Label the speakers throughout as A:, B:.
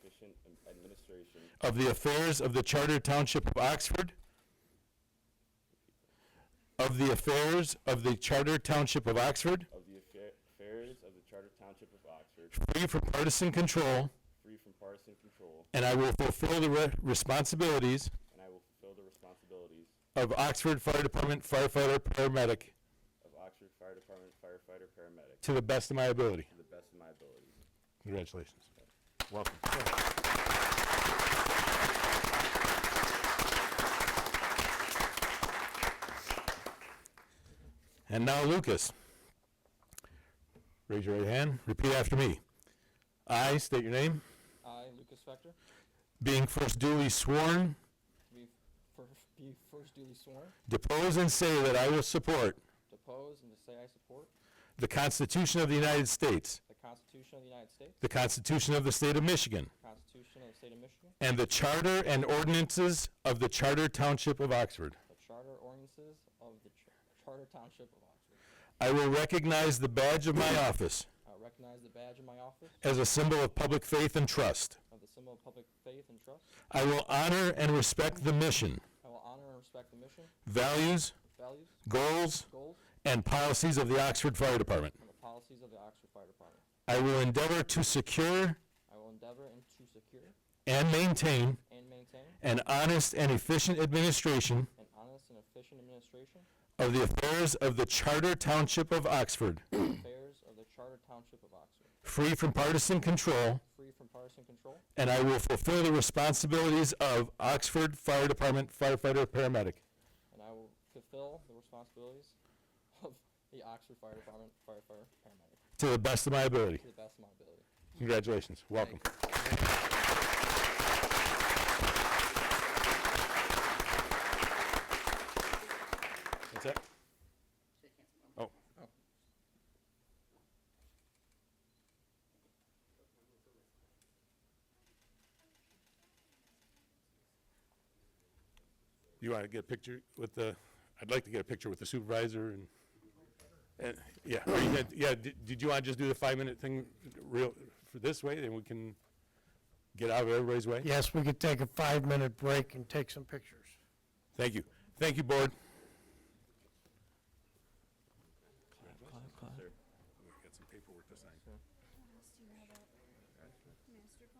A: efficient am- administration
B: of the affairs of the Charter Township of Oxford, of the affairs of the Charter Township of Oxford,
A: of the affair- affairs of the Charter Township of Oxford,
B: free from partisan control,
A: free from partisan control,
B: and I will fulfill the re- responsibilities
A: and I will fulfill the responsibilities
B: of Oxford Fire Department firefighter paramedic
A: of Oxford Fire Department firefighter paramedic
B: to the best of my ability.
A: to the best of my abilities.
B: Congratulations. Welcome. And now Lucas. Raise your right hand, repeat after me. I state your name,
C: I, Lucas Fector,
B: being first duly sworn,
C: be first, be first duly sworn,
B: depose and say that I will support
C: depose and to say I support
B: the Constitution of the United States,
C: the Constitution of the United States,
B: the Constitution of the State of Michigan,
C: Constitution of the State of Michigan,
B: and the Charter and ordinances of the Charter Township of Oxford.
C: the Charter ordinances of the Ch- Charter Township of Oxford.
B: I will recognize the badge of my office
C: I recognize the badge of my office
B: as a symbol of public faith and trust.
C: of the symbol of public faith and trust.
B: I will honor and respect the mission,
C: I will honor and respect the mission,
B: values,
C: values,
B: goals,
C: goals,
B: and policies of the Oxford Fire Department.
C: and the policies of the Oxford Fire Department.
B: I will endeavor to secure
C: I will endeavor and to secure
B: and maintain
C: and maintain
B: an honest and efficient administration
C: an honest and efficient administration
B: of the affairs of the Charter Township of Oxford,
C: of affairs of the Charter Township of Oxford,
B: free from partisan control,
C: free from partisan control,
B: and I will fulfill the responsibilities of Oxford Fire Department firefighter paramedic.
C: And I will fulfill the responsibilities of the Oxford Fire Department firefighter paramedic
B: To the best of my ability.
C: to the best of my ability.
B: Congratulations. Welcome. What's that? Oh. You want to get a picture with the, I'd like to get a picture with the supervisor and, and, yeah, or you had- yeah, did did you want to just do the five-minute thing real, for this way, then we can get out of everybody's way?
D: Yes, we could take a five-minute break and take some pictures.
B: Thank you. Thank you, board.
A: Sir.
B: Got some paperwork to sign.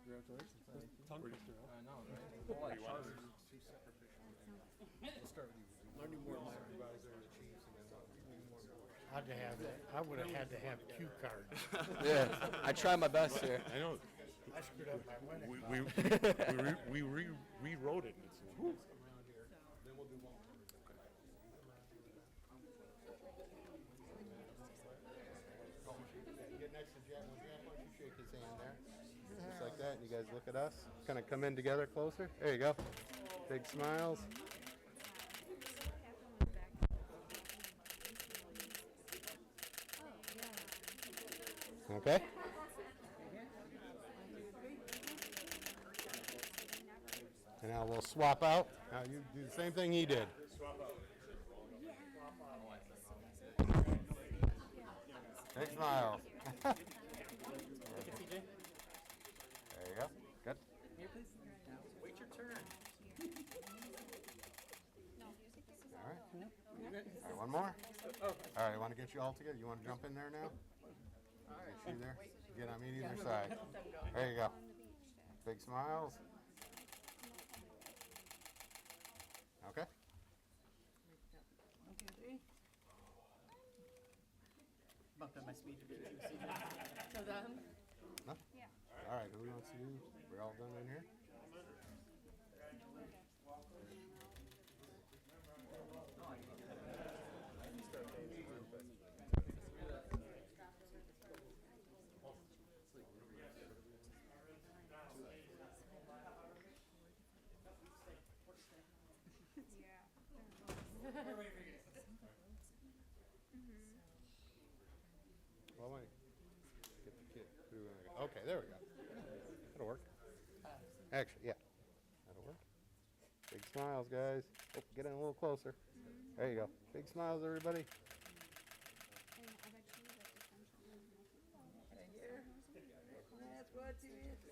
E: Master plan?
C: I know,
D: I'd have, I would have had to have cue cards.
C: Yeah, I tried my best here.
B: I know,
D: I screwed up my wedding.
B: we, we, we re- we re- rewrote it, and it's, whew.
F: Get next to Jack, when Jack, why don't you shake his hand there? Just like that, and you guys look at us, kind of come in together closer, there you go. Big smiles. Okay? And now we'll swap out, now you do the same thing he did. Big smile. There you go, good. All right. All right, one more. All right, I want to get you all together. You want to jump in there now? All right. You there? Get on either side. There you go. Big smiles. Okay.
G: bumped up my speed a bit. too soon. So then,
F: All right, who wants to do? We're all done in here? Well, wait. Get the kid. Who do we wanna get? Okay, there we go. That'll work. Actually, yeah. That'll work. Big smiles, guys. Oh, get in a little closer. There you go. Big smiles, everybody.
G: that's what it is.